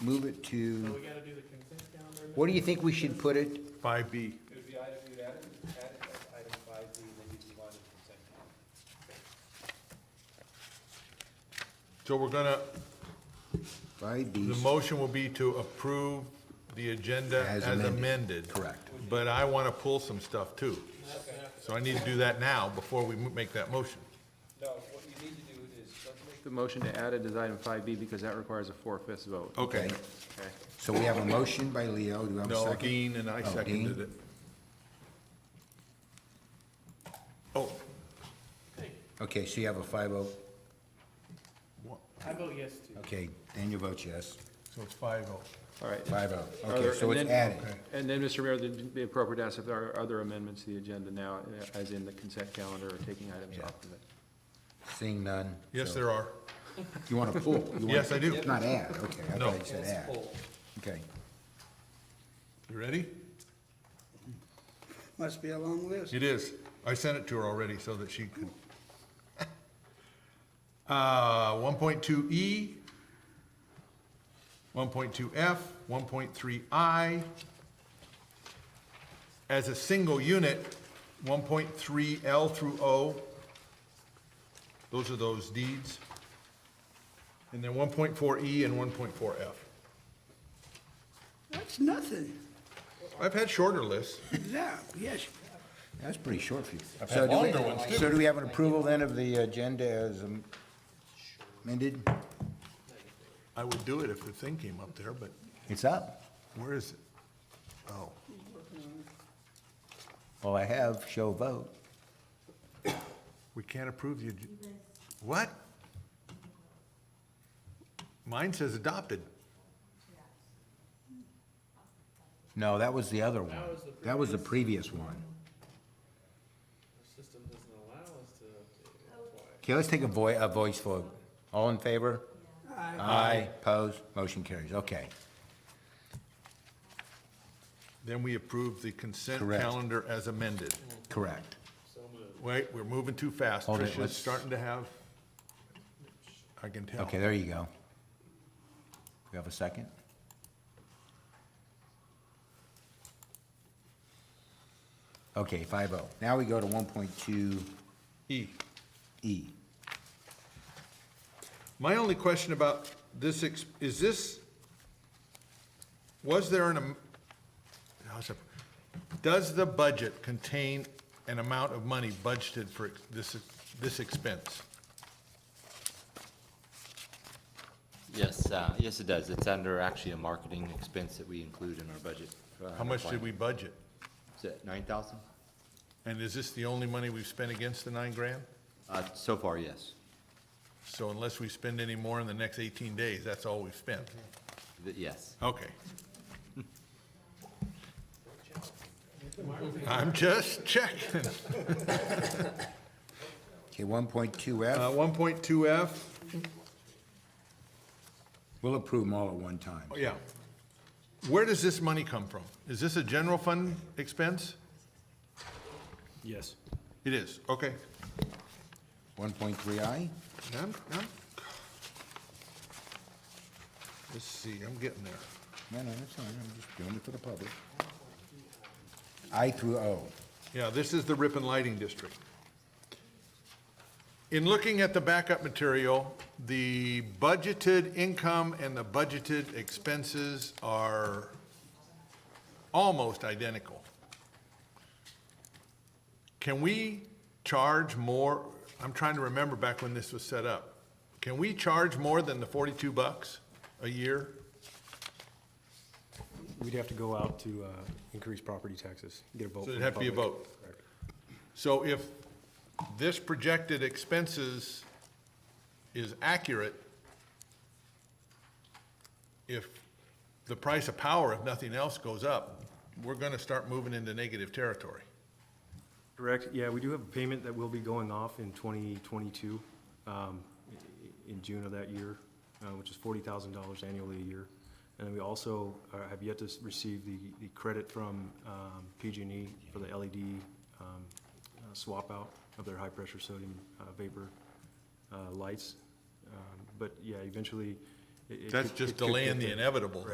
move it So to, we gotta do the consent calendar. what do you think we should put it? Five B. It would be item, you'd add it, add it as item five B, and then you'd move on to consent calendar. So we're gonna, Five the B, motion will be to approve the agenda As as amended. amended. Correct. But I want to pull some stuff too. So I need to do that now before we mo- make that motion. No, what you need to do is, let's make, The motion to add it is item five B because that requires a four-fifths vote. Okay. Okay. Okay. so we have a motion by Leo, do I have a No, second? Dean and I Oh, seconded Dean? it. Oh, Okay, so you have a five oh, wha- I vote yes to. okay, Daniel votes yes, so it's five oh. All right. five oh, Are okay, there- so and it's then- added. And then, Mr. Mayor, it'd be appropriate to ask if there are other amendments to the agenda now, eh, as in the consent calendar or taking items Yeah. off of it. Seeing none. Yes, so- there are. You want to pull? You wanna- Yes, I do. It's Not add, okay, I No. thought you said add, okay. You ready? Must be a long list. It is. I sent it to her already so that she could. Uh, 1.2E, 1.2F, 1.3I. As a single unit, 1.3L through O. Those are those deeds. And then 1.4E E and 1.4F. That's nothing. I've had shorter lists. Yeah, yes. That's pretty short for you. I've So had do we- longer ones, too. So do we have an approval then of the agenda as amended? I would do it if the thing came up there, but It's up. where is it? Oh. All I have, show vote. We can't approve the, ag- what? Mine says adopted. No, that was the other one. That was the previous one. System doesn't allow us to update it. Okay, let's take a voi, a voice vote. All in favor? Aye. Opposed? Motion carries. Okay. Then we approve the consent Correct. calendar as amended. Correct. Wait, we're moving too fast. Hold it, Tricia's let's- starting to have, I can tell. Okay, there you go. We have a second? Okay, five oh. Now we go to one point two E. E. My only question about this, ex- is this, was there an, am- how's it- does the budget contain an amount of money budgeted for ex- this, this expense? Yes, uh, yes, it does. It's under actually a marketing expense that we include in our budget. Uh, How much did we budget? Is it nine thousand? And is this the only money we've spent against the nine grand? Uh, so far, yes. So unless we spend any more in the next 18 days, that's all we've spent? Th- Yes. Okay. I'm just checking. Okay, one point two F. Uh, 1.2F, We'll approve them all at one time. oh, yeah. Where does this money come from? Is this a general fund expense? Yes. It is, okay. One point three I? I'm- I'm- Let's see, I'm getting there. No, no, that's fine, I'm just doing it for the public. I through O. Yeah, this is the Ripon Lighting District. In looking at the backup material, the budgeted income and the budgeted expenses are almost identical. Can we charge more, I'm trying to remember back when this was set up. Can we charge more than the 42 bucks a year? We'd have to go out to uh, increase property taxes, get a vote. So it'd from the have to be a public. vote. Correct. So if this projected expenses is accurate, if the price of power, if nothing else goes up, we're gonna start moving into negative territory. Correct, yeah, we do have a payment that will be going off in 2022, um, i- in June of that year, uh, which is $40,000 annually a year. And then we also uh, have yet to s- receive the the credit from um, PG&E for the LED um, uh, swap out of their high-pressure sodium uh, vapor uh, lights. Um, But yeah, eventually, it- it That's could- just it could delaying get the there. inevitable.